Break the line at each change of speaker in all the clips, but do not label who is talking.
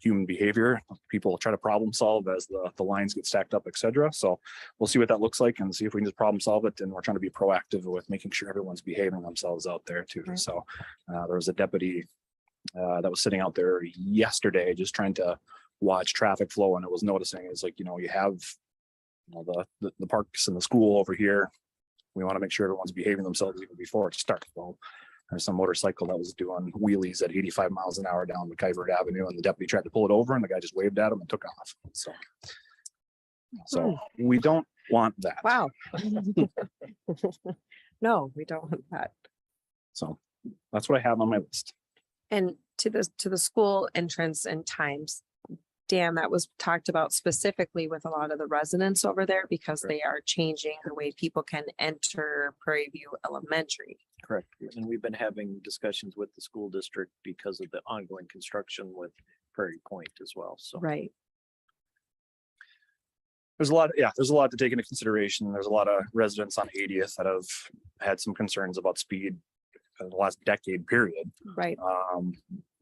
human behavior. People try to problem solve as the, the lines get stacked up, et cetera. So we'll see what that looks like and see if we can just problem solve it. And we're trying to be proactive with making sure everyone's behaving themselves out there too.
Right.
So uh, there was a deputy uh, that was sitting out there yesterday, just trying to watch traffic flow and it was noticing it's like, you know, you have you know, the, the, the parks and the school over here. We want to make sure everyone's behaving themselves even before it starts. Well, there's some motorcycle that was doing wheelies at eighty-five miles an hour down McIver Avenue and the deputy tried to pull it over and the guy just waved at him and took off. So. So we don't want that.
Wow. No, we don't want that.
So that's what I have on my list.
And to the, to the school entrance and times. Dan, that was talked about specifically with a lot of the residents over there because
Correct.
they are changing the way people can enter Prairie View Elementary.
Correct. And we've been having discussions with the school district because of the ongoing construction with Prairie Point as well. So
Right.
There's a lot, yeah, there's a lot to take into consideration. There's a lot of residents on 80th that have had some concerns about speed in the last decade period.
Right.
um,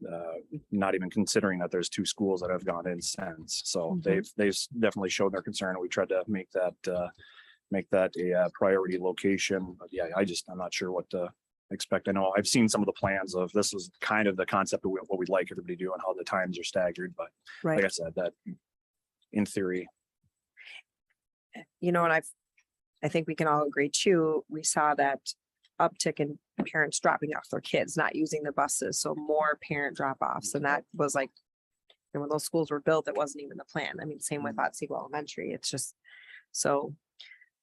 uh, not even considering that there's two schools that have gone in since. So
Mhm.
they've, they've s- definitely shown their concern. and We tried to make that, uh, make that a uh, priority location. But yeah, I just, I'm not sure what to expect. I know I've seen some of the plans of, this was kind of the concept of what we'd like everybody to do and how the times are staggered, but like I
Right.
said, that in theory,
You know, and I've, I think we can all agree too, we saw that uptick in parents dropping off their kids, not using the buses. So more parent drop offs and that was like, and when those schools were built, it wasn't even the plan. I mean, same with Otsego Elementary. It's just, so,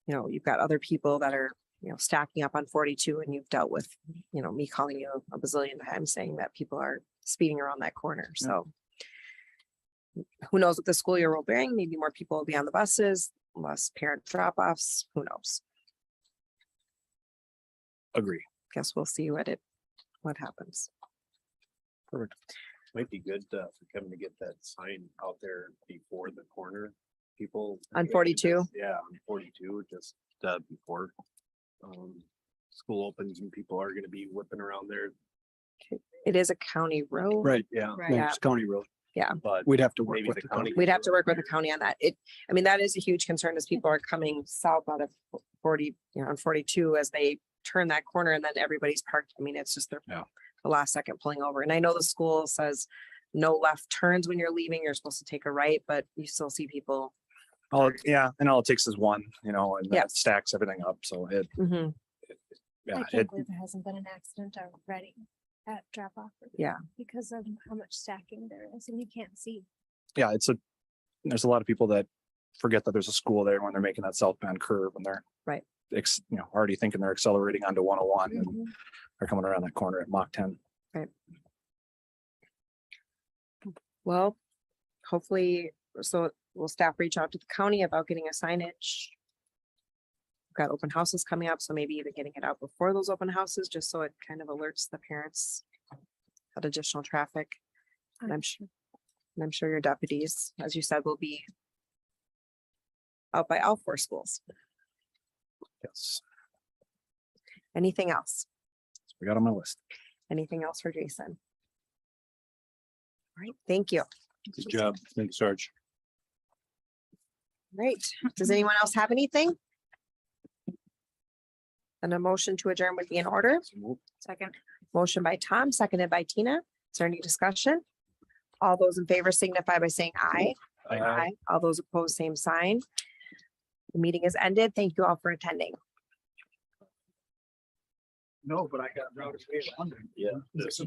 you know, you've got other people that are, you know, stacking up on forty-two and you've dealt with, you know, me calling you a bazillion times saying that people are speeding around that corner. So who knows what the school year will bring? Maybe more people will be on the buses, less parent drop-offs, who knows?
agree.
guess we'll see what it, what happens.
might be good uh, for Kevin to get that sign out there before the corner. People.
On 42?
Yeah, on forty-two, just uh, before um, school opens and people are gonna be whipping around there.
It is a county road.
Right, yeah,
Right.
no, it's county road.
But
We'd have to work
maybe
with
the county.
We'd have to work with the county on that. It, I mean, that is a huge concern as people are coming south out of forty, you know, on forty-two as they turn that corner and then everybody's parked. I mean, it's just their
Yeah.
the last second pulling over. And I know the school says no left turns when you're leaving. You're supposed to take a right, but you still see people.
All, it- yeah, and all it takes is one, you know, and
Yeah.
that stacks everything up. So it, yeah,
I
it,
can't believe there hasn't been an accident already at drop off.
Yeah.
Because of how much stacking there is and you can't see.
yeah, it's a, there's a lot of people that forget that there's a school there when they're making that southbound curve and they're.
Right. Mm-hmm.
Ex, you know, already thinking they're accelerating onto one oh one and
Mhm.
they're coming around that corner at Mach ten.
Well, hopefully, so will staff reach out to the county about getting a signage? Got open houses coming up, so maybe even getting it out before those open houses, just so it kind of alerts the parents. That additional traffic, and I'm sure, and I'm sure your deputies, as you said, will be. Out by all four schools.
Yes,
Anything else?
that's what we got on my list.
Anything else for Jason? All right, thank you.
Good job. Thanks, Sarge.
Great. Does anyone else have anything? Then a motion to adjourn would be in order.
Second.
Motion by Tom, seconded by Tina. Is there any discussion? All those in favor signify by saying aye.
Aye.
All those opposed, same sign. The meeting is ended. Thank you all for attending.
No, but I got routed.
Yeah.